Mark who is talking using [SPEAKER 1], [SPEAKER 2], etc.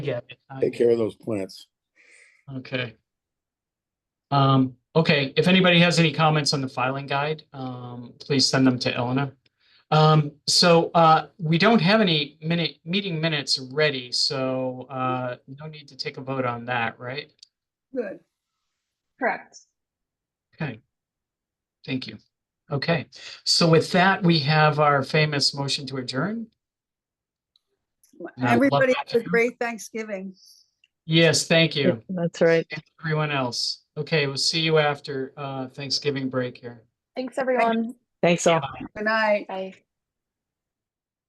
[SPEAKER 1] Yeah. I-
[SPEAKER 2] Take care of those plants.
[SPEAKER 1] Okay. Um, okay, if anybody has any comments on the filing guide, um, please send them to Eleanor. Um, so, uh, we don't have any minute, meeting minutes ready, so, uh, no need to take a vote on that, right?
[SPEAKER 3] Good.
[SPEAKER 4] Correct.
[SPEAKER 1] Okay. Thank you. Okay, so with that, we have our famous motion to adjourn. And I love
[SPEAKER 3] Everybody
[SPEAKER 1] that.
[SPEAKER 3] have a great Thanksgiving.
[SPEAKER 1] Yes, thank you,
[SPEAKER 5] That's right.
[SPEAKER 1] everyone else. Okay, we'll see you after, uh, Thanksgiving break here.
[SPEAKER 4] Thanks, everyone.
[SPEAKER 5] Thanks all.
[SPEAKER 3] Good night.
[SPEAKER 4] Bye.